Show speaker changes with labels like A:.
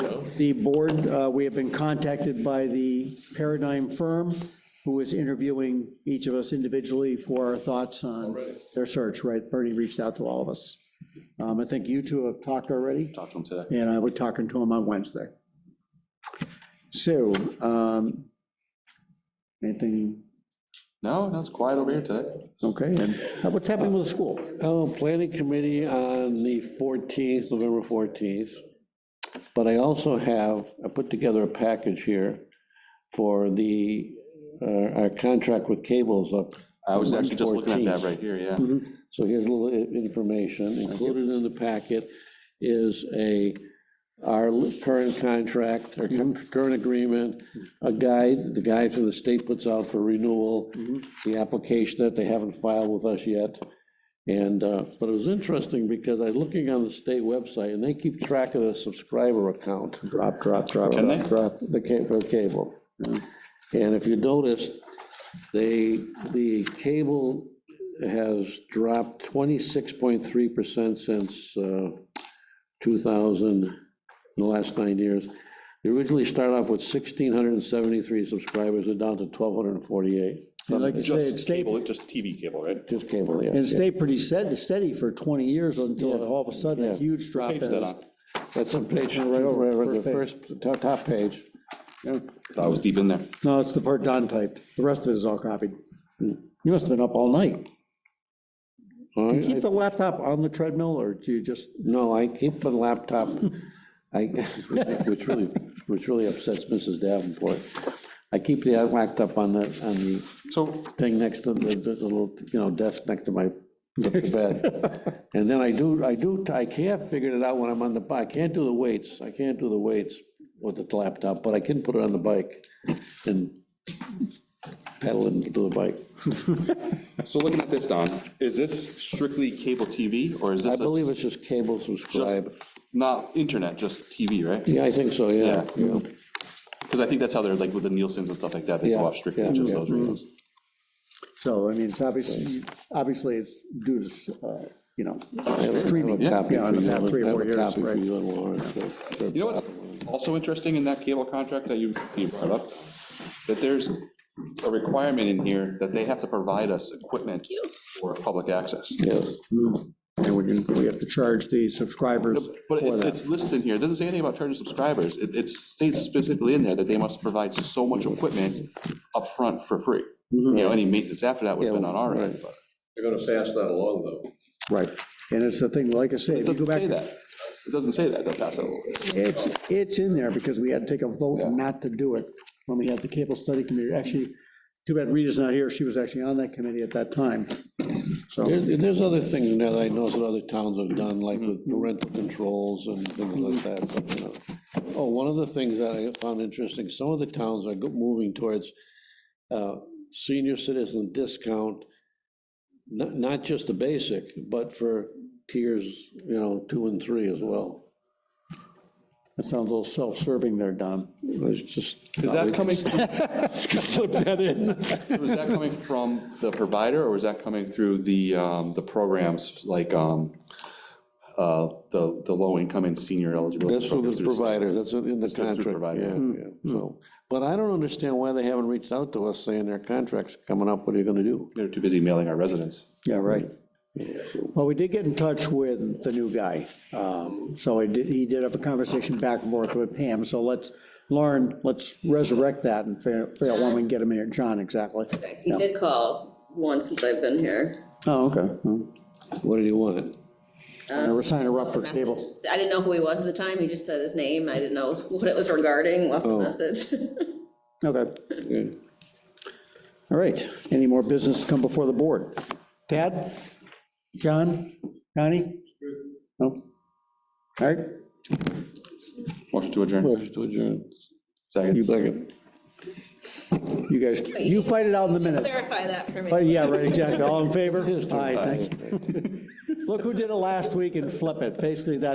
A: the board, uh, we have been contacted by the Paradigm firm, who is interviewing each of us individually for our thoughts on their search, right? Bernie reached out to all of us. Um, I think you two have talked already,
B: Talk to him today.
A: and I will be talking to him on Wednesday. So, um, anything,
B: No, no, it's quiet over here today.
A: okay, and uh, what's happening with the school?
C: Uh,
D: Oh, planning committee on the 14th, November 14th. But I also have, I put together a package here for the, uh, our contract with cables up.
B: I was actually just looking at that
D: 14th.
B: right here, yeah.
D: So here's a little i- information. Included in the packet is a, our li- current contract,
A: Mm-hmm.
D: our cu- current agreement, a guide, the guide from the state puts out for renewal,
A: Mm-hmm.
D: the application that they haven't filed with us yet. And, uh, but it was interesting because I looking on the state website and they keep track of the subscriber account.
A: Drop, drop, drop,
B: Can
A: drop,
B: they?
A: drop.
D: The ca, for the cable. And if you notice, they, the cable has dropped twenty-six point three percent since uh, two thousand, in the last nine years. They originally started off with sixteen hundred and seventy-three subscribers, they're down to twelve hundred and forty-eight,
A: And like you say, it stayed,
C: Cable, just TV cable, right?
D: just cable,
A: and it
D: yeah.
A: stayed pretty sed- steady for 20 years until all of a sudden a
D: Yeah.
A: huge drop.
C: Page is that on?
D: That's on page, right over, the
A: First page.
D: first, top, top page.
B: I was deep in there.
A: No, it's the part Don typed. The rest of it is all copied. You must have been up all night.
D: All right,
A: You keep the laptop on the treadmill, or do you just,
D: No, I keep the laptop, I, which really, which really upsets Mrs. Davenport. I keep the laptop on the, on the
B: So,
D: thing next to the, the little, you know, desk next to my the bed. And then I do, I do, I can't figure it out when I'm on the bike, I can't do the weights, I can't do the weights with the laptop, but I can put it on the bike and pedal it and do the bike.
B: so looking at this, Don, is this strictly cable TV or is
D: I
B: this a-
D: believe it's just cable
B: just,
D: subscribe.
B: not internet, just TV, right?
D: Yeah, I think so, yeah,
B: Yeah.
D: yeah.
B: Because I think that's how they're like with the Nielsen's and stuff like that, they
D: Yeah,
B: watch strictly
D: yeah,
B: just
D: yeah.
B: those reasons.
A: so, I mean, it's obviously, obviously it's due to, uh, you know,
D: I have a- I have a
A: streaming.
D: copy
A: Yeah,
D: for you.
A: yeah, three or
D: I have
A: four
D: a
A: years,
D: copy for
A: right.
D: you and Lauren, so- so-
B: You know what's also interesting in that cable contract that you you brought up? That there's a requirement in here that they have to provide us equipment for public access.
D: Yes,
A: And we can, we have to charge the subscribers
B: But
A: for
B: it's,
A: that.
B: it's listed here, it doesn't say anything about charging subscribers, it, it states specifically in there that they must provide so much equipment upfront for free.
D: Mm-hmm.
B: You know, any maintenance after that would have been on our end, but
E: They're gonna pass that along, though.
A: Right. And it's the thing, like I say,
B: it
A: if you go
B: doesn't
A: back,
B: say that, it doesn't say that, that that's a,
A: it's, it's in there because we had to take a vote
B: Yeah.
A: not to do it when we had the cable study committee. Actually, too bad Rita's not here. She was actually on that committee at that time. So,
D: There- there's other things in there that I know that other towns have done, like with
B: Mm-hmm.
D: parental controls and things like that, but, you know. Oh, one of the things that I found interesting, some of the towns are go- moving towards uh, senior citizen discount, not, not just the basic, but for tiers, you know, two and three as well.
A: that sounds a little self-serving there, Don.
D: It's just.
B: is that coming,
D: Slip that in.
B: was that coming from the provider, or was that coming through the, um, the programs, like, um, uh, the, the low-income and senior eligibility?
D: That's for
B: programs
D: the
B: through the state?
D: provider, that's in the
B: through the
D: contract,
B: provider.
D: yeah, yeah, so. But I don't understand why they haven't reached out to us saying their contract's coming up, what are you gonna do?
B: They're too busy mailing our residents.
A: Yeah, right. Well, we did get in touch with the new guy. Um, So I did, he did have a conversation back and forth with Pam, so let's, Lauren, let's resurrect that and figure figure out when we can get him in here. John, exactly.
F: He did call once since I've been here.
A: Oh, okay. Hmm.
D: What do you want?
A: And We're signing her up for
F: Message.
A: cable.
F: I didn't know who he was at the time, he just said his name, I didn't know what it was regarding, left
A: Oh.
F: a message.
A: Okay. All right. Any more business to come before the board? Tad? John? Connie? No? All right.
B: Motion to adjourn.
D: Motion to adjourn.
B: Second.
D: Second.
A: You guys, you fight it out in a minute.
F: Clarify that for
A: Uh,
F: me.
A: Yeah, right, exactly. All in favor?
D: Sister.
A: Aye, thank you. Look who did it last week and flip it. Basically, that.